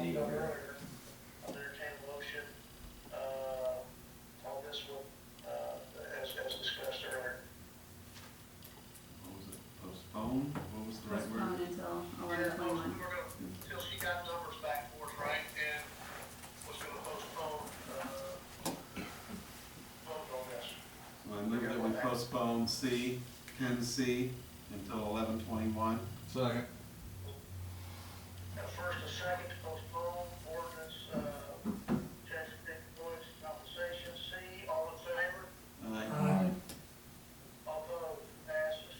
need over I'll entertain a motion, uh, on this one, uh, as, as discussed earlier. what was it, postpone, what was the right Postpone word? until eleven Yeah, most- twenty-one. We're gonna, till she got numbers back for us, right, and was gonna postpone, uh, vote on this. So I move that we postpone C, ten C until eleven twenty-one. Second. Now, first and second to postpone ordinance, uh, tax employees compensation, C, all in favor? Aye. Although passes,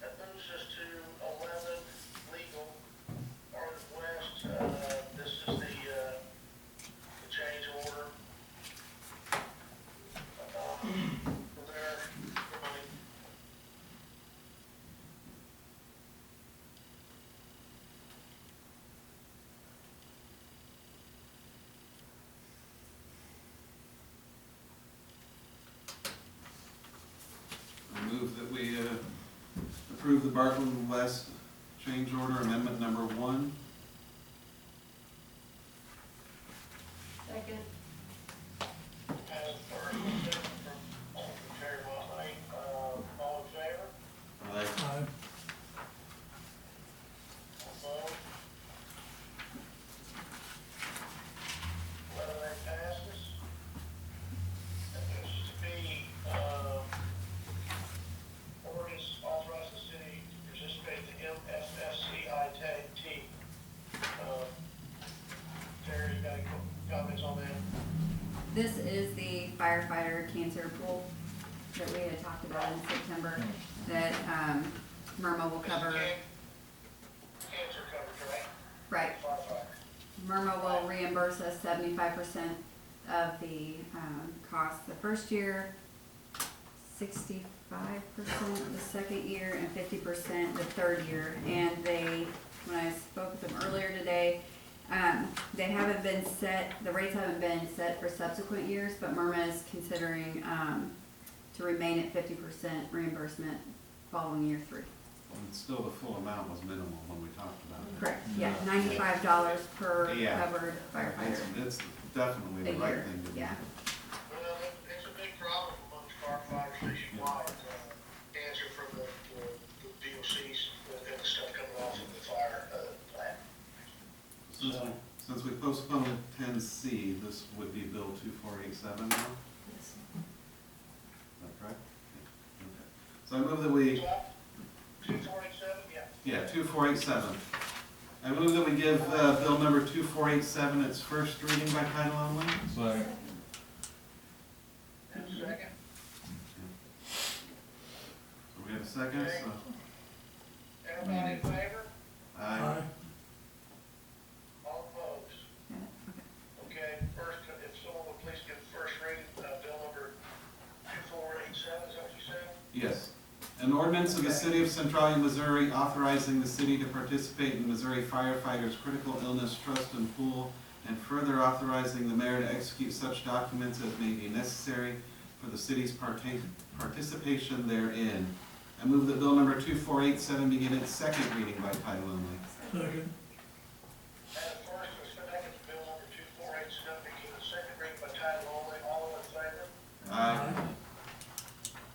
that moves us to eleven legal, Arden West, uh, this is the, uh, the change order. Uh, for their, for my, I move that we, uh, approve the Bartlett West change order amendment number one. Second. uh, first, and second from Alderman Terry Wiley, uh, all in favor? Aye. Although. Eleven that passes. That moves us to be, uh, ordinance authorizing the city to participate in the MSSCI tag team. Uh, Terry, you got any co- comments on that? This is the firefighter cancer pool that we had talked about in September that, um, Murma will cover, Cancer coverage, right? right, Firefighter. Murma will reimburse us seventy-five percent of the, um, cost the first year, sixty-five percent the second year, and fifty percent the third year. And they, when I spoke with them earlier today, um, they haven't been set, the rates haven't been set for subsequent years, but Murma is considering, um, to remain at fifty percent reimbursement following year three. And still the full amount was minimal when we talked about it. Correct, yeah, ninety-five dollars per Yeah. covered firefighter. It's, it's definitely A the right year, thing to do. yeah. Well, it- it's a big problem amongst firefighters nationwide, uh, answer from the, the- the DOCs and the stuff coming off of the fire, uh, plant. Since we, since we postponed ten C, this would be Bill two four eight seven now? Is that correct? Yeah, okay. So I move that we, Two forty-seven, yeah. yeah, two four eight seven. I move that we give, uh, bill number two four eight seven its first reading by title only. And Second. second, So we have a second, so, everybody in favor? aye. All opposed? Yeah, okay. Okay, first, if someone would please give first reading, uh, bill number two four eight seven, is that what you said? Yes. An ordinance of the City of Centralia, Missouri authorizing the city to participate in Missouri firefighters' critical illness trust and pool, and further authorizing the mayor to execute such documents as may be necessary for the city's parta- participation therein. I move that bill number 2487 begin its second reading by title only. Second, And first, and second, bill number two four eight seven, begin the second reading by title only, all in favor? Aye.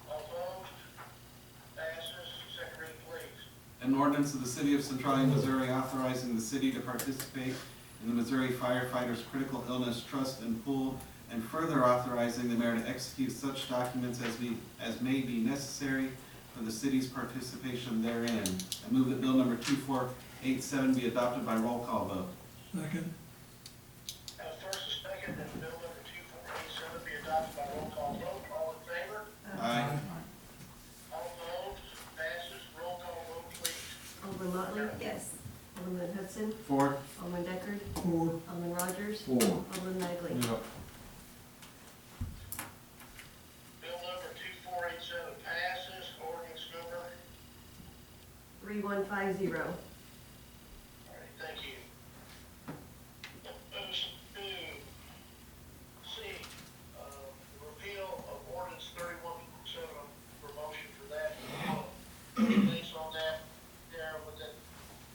Opposed? Passes. Second reading, please. An ordinance of the City of Centralia, Missouri authorizing the city to participate in the Missouri Firefighters Critical Illness Trust and Pool, and further authorizing the mayor to execute such documents as be, as may be necessary for the city's participation therein. I move that bill number two four eight seven be adopted by roll call vote. second, Now, first and second, that bill number two four eight seven be adopted by roll call vote. All in favor? Aye. All opposed? Passes. Roll call vote, please. Alderman Motley? Yes. Alderman Hudson? Four. Alderman Deckard? four, Alderman Rogers? Four. Alderman Magley? Yep. Bill number two four eight seven passes. Ordinance number Three one five zero. uh, Uh,